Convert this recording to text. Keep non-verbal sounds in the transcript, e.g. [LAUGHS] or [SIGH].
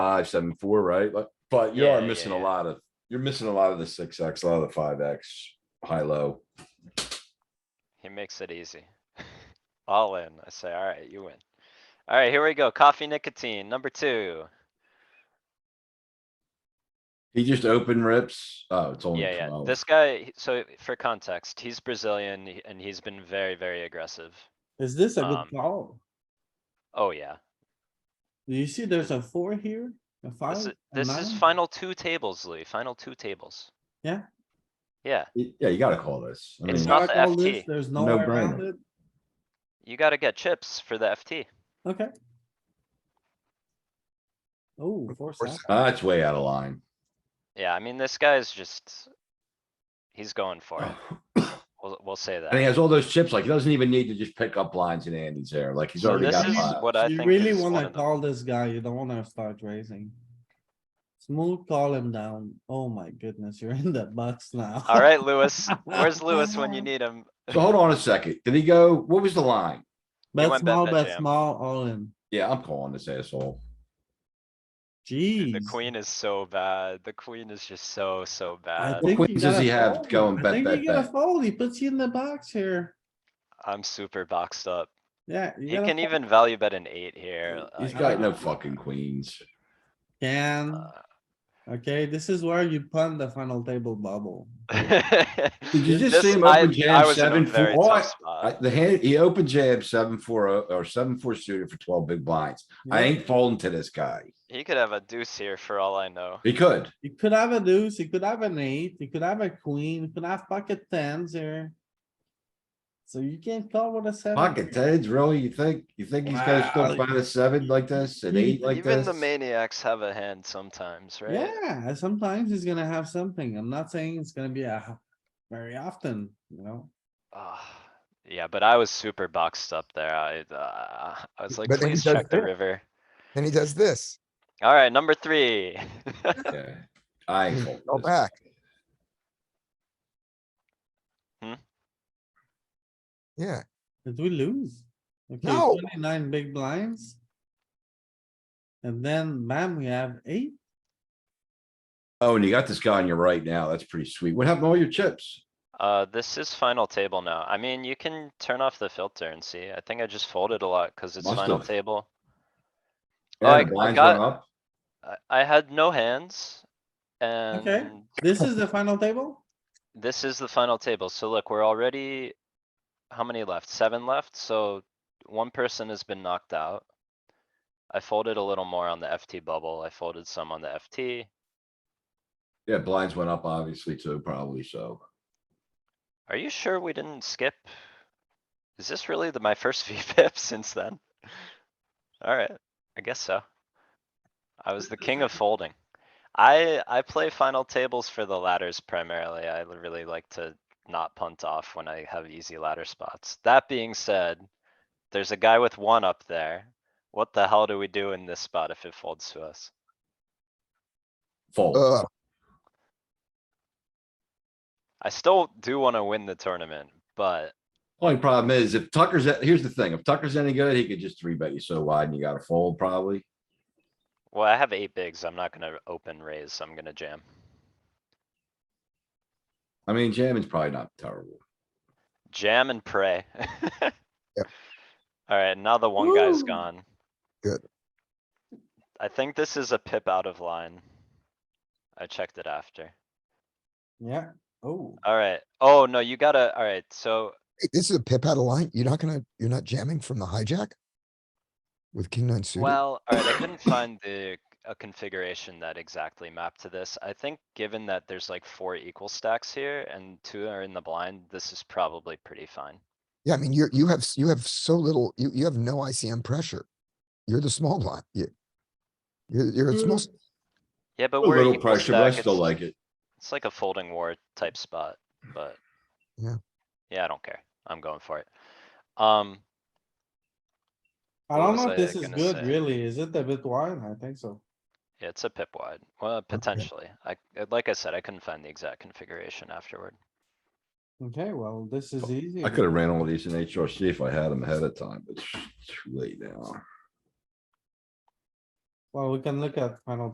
five, seven, four, right? But, but you are Yeah, missing a yeah. lot of, you're missing a lot of the six X, a lot of the five X, high, low. He makes it easy. [LAUGHS] All in. I say, alright, you win. Alright, here we go. Coffee nicotine, number two. He just open rips. Oh, it's only Yeah, yeah. twelve. This guy, he- so for context, he's Brazilian he- and he's been very, very aggressive. Is this a Um, good call? Oh, yeah. Do you see there's a four here? A five? This is, a this is nine? final two tables, Louis, final two tables. Yeah. Yeah, Yeah, you gotta call this. I mean, It's You not gotta the call this, FT. There's no way No-brainer. around it. you gotta get chips for the FT. Okay. Oh, four, uh, seven. That's way out of line. Yeah, I mean, this guy's just. He's going for it. We'll, we'll say Oh, And he that. has all those chips, like he doesn't even need to just pick up lines in Andy's there, like he's So already this got is five. what I You think really is one wanna of them. call this guy, you don't wanna start raising. Smooth call him down. Oh my goodness, you're [LAUGHS] in the box now. [LAUGHS] Alright, Louis, where's Louis when you need him? So hold on a second. Did he go, what was the line? Bet went bet small, that bet jam. small, all in. Yeah, I'm calling this asshole. Dude, The Jeez. queen is so bad. The queen is just so, so I bad. think queens you does gotta he have fold. going I bet, think bet, you gotta bet? Fold, he puts you in the box here. I'm super boxed up. Yeah. you He gotta can fold. even value bet an eight here. He's like, got no uh, fucking queens. e- Can, okay, this is where you pun the final table bubble. [LAUGHS] Did [LAUGHS] you just uh, This- see him I- open I jam was in a seven, very four? Oh, tough I- spot. I- The hand, he opened jab seven, four, oh, or seven, four suited for twelve big blinds. I Yeah. ain't folding to this guy. He could have a deuce here for all I know. He could. You could have a deuce, you could have an eight, you could have a queen, you could have pocket tens here. So you can't call with a seven. Pocket here. tens, really? You think, you think he's gonna still Wow. find a seven like this, an He- eight like Even this? the maniacs have a hand sometimes, right? Yeah, sometimes he's gonna have something. I'm not saying it's gonna be a very often, you know? Ah, Yeah, but I was super boxed up there. I, uh, I was like, But then he please does check the that. river. Then he does this, Alright, number three. Yeah, I [LAUGHS] ain't folding go this. back. Hmm? Yeah, Did we lose? Okay, No. Twenty-nine big blinds. And then bam, we have eight. Oh, and you got this guy on your right now. That's pretty sweet. What happened to all your chips? Uh, this is final table now. I mean, you can turn off the filter and see. I think I just folded a lot cuz it's Must final have. table. Oh, Yeah, I- the I blinds got- went up. I, I had no hands. And This is the final table? this is the final table. So look, we're already. How many left? Seven left, so one person has been knocked out. I folded a little more on the FT bubble. I folded some on the FT. Yeah, blinds went up obviously too, probably so. Are you sure we didn't skip? Is this really the, my first [LAUGHS] VPIP since then? Alright, I guess so. I was the king of folding. I, I play final tables for the ladders primarily. I l- really like to not punt off when I have easy ladder spots. That being said, there's a guy with one up there. What the hell do we do in this spot if it folds to us? Fold. Ugh, I still do wanna win the tournament, but Only problem is if Tucker's, a- here's the thing, if Tucker's any good, he could just three bet you so wide and you gotta fold probably. Well, I have eight bigs. I'm not gonna open raise. I'm gonna jam. I mean, jamming's probably not terrible. Jam and pray. [LAUGHS] Alright, now the one guy's Woo. gone. Good. I think this is a pip out of line. I checked it after. Yeah, oh, Alright, oh no, you gotta, alright, so Hey, this is a pip out of line. You're not gonna, you're not jamming from the hijack? With king nine suited? Well, alright, I couldn't find the, a configuration that exactly mapped to this. I think given that there's like four equal stacks here and two are in the blind, this is probably pretty fine. Yeah, I mean, you're, you have, s- you have so little, you, you have no ICM pressure. You're the small blind, you. You're, you're a small, s- Yeah, A but we're little equal pressure, but I stack, still it's, like it. it's like a folding war type spot, but. Yeah. Yeah, I don't care. I'm going for it. Um, I What don't was know I if this is gonna good say? really. Is it a bit wide? I think so. yeah, it's a pip wide. Well, potentially. I, uh, like I said, I couldn't find the exact configuration afterward. Okay, well, this is easy. I could have ran all these in HRC if I had them ahead of time, but it's too late now. Well, we can look at final